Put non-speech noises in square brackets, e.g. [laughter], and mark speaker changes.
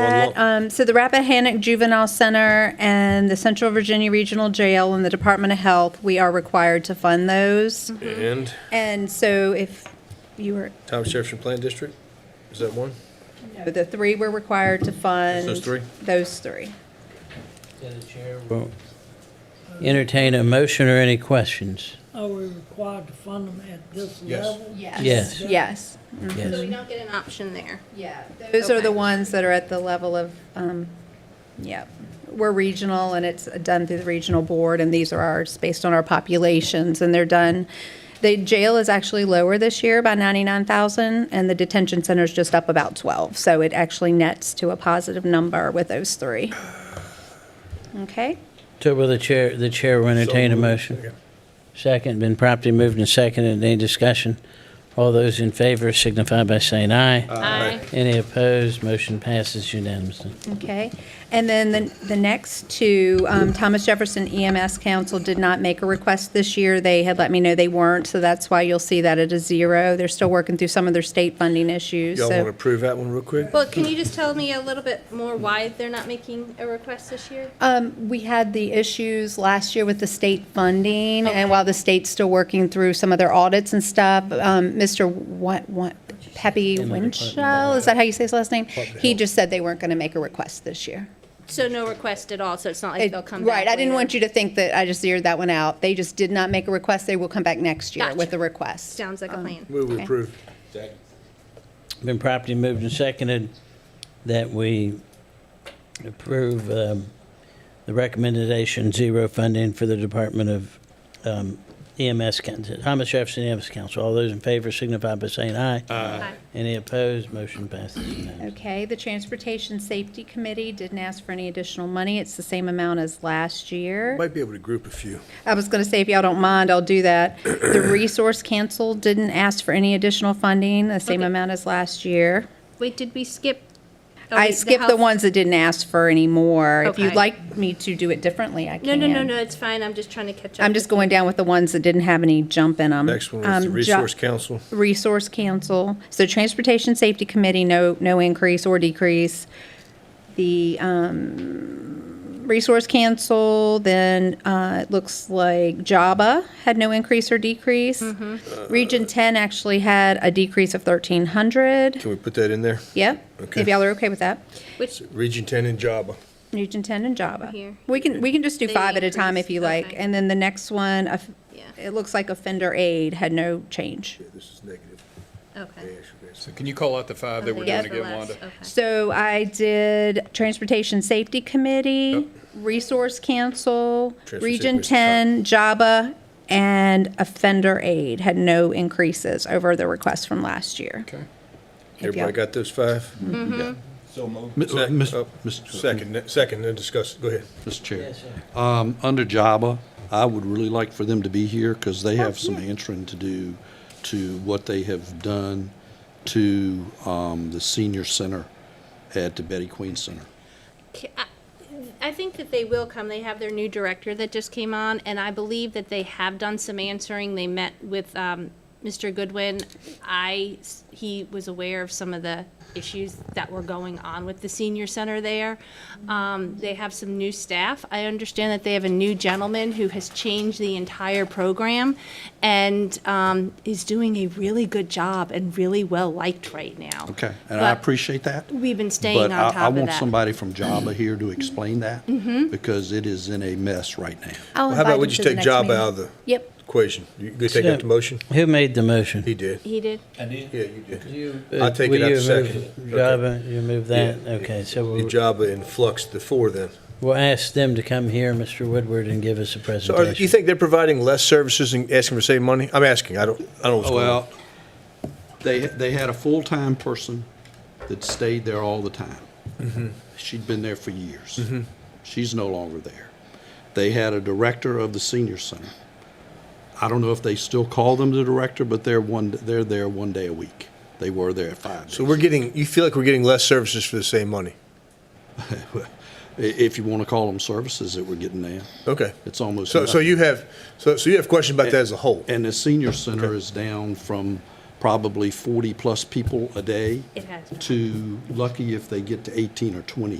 Speaker 1: That, um, so the Rappahannock Juvenile Center and the Central Virginia Regional Jail and the Department of Health, we are required to fund those.
Speaker 2: And
Speaker 1: And so if you were,
Speaker 2: Tom Jefferson Plant District, is that one?
Speaker 1: the three we're required to fund.
Speaker 2: Those three?
Speaker 1: Those three.
Speaker 3: Yeah, the chair.
Speaker 4: Well, Entertain a motion or any questions?
Speaker 5: Are we required to fund them at this
Speaker 2: Yes.
Speaker 5: level?
Speaker 6: Yes.
Speaker 4: Yes,
Speaker 1: Yes.
Speaker 6: So we
Speaker 4: yes.
Speaker 6: don't get an option there.
Speaker 1: Yeah. Those are the
Speaker 6: Okay.
Speaker 1: ones that are at the level of, um, yeah, we're regional and it's done through the regional board and these are ours based on our populations and they're done. The jail is actually lower this year by 99,000 and the detention center is just up about 12. So it actually nets to a positive number with those three. Okay?
Speaker 4: So will the chair, the chair will entertain a motion? Second, been promptly moved and seconded. Any discussion? All those in favor signify by saying aye.
Speaker 6: Aye.
Speaker 4: Any opposed? Motion passes unanimously.
Speaker 1: Okay, and then the, the next two, um, Thomas Jefferson EMS Council did not make a request this year. They had let me know they weren't, so that's why you'll see that at a zero. They're still working through some of their state funding issues,
Speaker 2: Y'all want to
Speaker 1: so.
Speaker 2: approve that one real quick?
Speaker 6: Well, can you just tell me a little bit more why they're not making a request this year?
Speaker 1: Um, we had the issues last year with the state funding, and while the state's still working through some of their audits and stuff, um, Mr. What, what, Pepe Winchell, is that how you say his last name? He just said they weren't gonna make a request this year.
Speaker 6: So no request at all, so it's not like
Speaker 1: It-
Speaker 6: they'll come back
Speaker 1: Right, I didn't want
Speaker 6: later.
Speaker 1: you to think that I just zeroed that one out. They just did not make a request. They will come back next year with
Speaker 6: Gotcha.
Speaker 1: a request.
Speaker 6: Sounds like a plan.
Speaker 2: Move we
Speaker 1: Okay.
Speaker 2: approve.
Speaker 4: Been properly moved and seconded that we approve um, the recommendation zero funding for the Department of um, EMS, Council- Thomas Jefferson EMS Council. All those in favor signify by saying aye.
Speaker 6: Aye.
Speaker 4: Any opposed? Motion passes unanimously.
Speaker 1: Okay, the Transportation Safety Committee didn't ask for any additional money. It's the same amount as last year.
Speaker 2: Might be able to group a few.
Speaker 1: I was going to say, if y'all don't mind, I'll do that.
Speaker 2: [clears throat]
Speaker 1: The Resource Council didn't ask for any additional funding, the same
Speaker 6: Okay.
Speaker 1: amount as last year.
Speaker 6: Wait, did we skip? oh, wait,
Speaker 1: I skipped the
Speaker 6: health-
Speaker 1: ones that didn't ask for any more. If you'd
Speaker 6: Okay.
Speaker 1: like me to do it differently, I can.
Speaker 6: No, no, no, no, it's fine, I'm just trying to catch up.
Speaker 1: I'm just going down with the ones that didn't have any jump in Um, them.
Speaker 2: Next one was the Resource Council.
Speaker 1: Resource Council, so Transportation Safety Committee, no, no increase or decrease. The um, Resource Council, then uh, it looks like Java had no increase or decrease. Region 10 actually had a decrease of 1,300.
Speaker 2: Can we put that in there?
Speaker 1: Yep,
Speaker 2: Okay.
Speaker 1: if y'all are okay with that.
Speaker 6: Which,
Speaker 2: Region 10 and Java.
Speaker 1: Region 10 and Java.
Speaker 6: Here.
Speaker 1: We can, we can just do
Speaker 6: They
Speaker 1: five at a time if
Speaker 6: increased,
Speaker 1: you like.
Speaker 6: okay.
Speaker 1: And then the next one, of-
Speaker 6: Yeah.
Speaker 1: it looks like offender aid had no change.
Speaker 2: Yeah, This is negative.
Speaker 6: okay.
Speaker 7: So can you call out the five that we're
Speaker 1: Yeah.
Speaker 7: doing again,
Speaker 6: uh,
Speaker 7: Wanda?
Speaker 1: So I did Transportation Safety Committee, Resource Council,
Speaker 2: Transportation
Speaker 1: Region
Speaker 2: was the top.
Speaker 1: 10, JABA, and Offender Aid had no increases over the request from last year.
Speaker 7: Okay.
Speaker 1: If
Speaker 2: Everybody
Speaker 1: y'all-
Speaker 2: got those five?
Speaker 1: Mm-hmm.
Speaker 8: Mi- uh,
Speaker 2: Sec-
Speaker 8: Mis-
Speaker 2: oh,
Speaker 8: Mr.
Speaker 2: Second, second, then discuss, go ahead.
Speaker 8: Mr. Chair, Um, under JABA, I would really like for them to be here because they have some answering to do to what they have done to um, the senior center at the Betty Queen Center.
Speaker 6: K- I- I think that they will come. They have their new director that just came on, and I believe that they have done some answering. They met with um, Mr. Goodwin. I, s- he was aware of some of the issues that were going on with the senior center there. Um, They have some new staff. I understand that they have a new gentleman who has changed the entire program and um, is doing a really good job and really well-liked right now.
Speaker 8: Okay, and I
Speaker 6: But
Speaker 8: appreciate that.
Speaker 6: We've been staying on top of that. Mm-hmm.
Speaker 8: But I- I want somebody from JABA here to explain that because it is in a mess right now.
Speaker 1: I'll
Speaker 2: Well, How
Speaker 1: invite
Speaker 2: about we
Speaker 1: him
Speaker 2: just
Speaker 1: to the
Speaker 2: take
Speaker 1: next
Speaker 2: Java
Speaker 1: meeting.
Speaker 2: out of the
Speaker 1: Yep.
Speaker 2: equation? You could take out the motion?
Speaker 4: Who made the motion?
Speaker 2: He did.
Speaker 6: He did?
Speaker 2: Yeah, you did.
Speaker 4: You, uh,
Speaker 2: I'll take it
Speaker 4: will
Speaker 2: out
Speaker 4: you
Speaker 2: the
Speaker 4: remove
Speaker 2: second.
Speaker 4: Java, you remove that?
Speaker 2: Yeah.
Speaker 4: Okay, so
Speaker 2: The
Speaker 4: we'll,
Speaker 2: Java and Flux, the four then.
Speaker 4: we'll ask them to come here, Mr. Woodward, and give us a
Speaker 2: So are, you
Speaker 4: presentation.
Speaker 2: think they're providing less services and asking for save money? I'm asking, I don't, I don't know what's going on.
Speaker 8: Oh, Well, they, they had a full-time person that stayed there all the time.
Speaker 2: Mm-hmm.
Speaker 8: She'd been there for years. She's no longer there. They had a director of the senior center. I don't know if they still call them the director, but they're one, they're there one day a week. They were there at five days.
Speaker 2: So we're getting, you feel like we're getting less services for the same money?
Speaker 8: [laughs] I- If you want to call them services that we're getting now.
Speaker 2: Okay.
Speaker 8: It's almost
Speaker 2: So, so
Speaker 8: nothing.
Speaker 2: you have, so, so you have questions about that as a whole?
Speaker 8: And the senior center is down from probably 40-plus people a day
Speaker 6: It has been.
Speaker 8: to lucky if they get to 18 or 20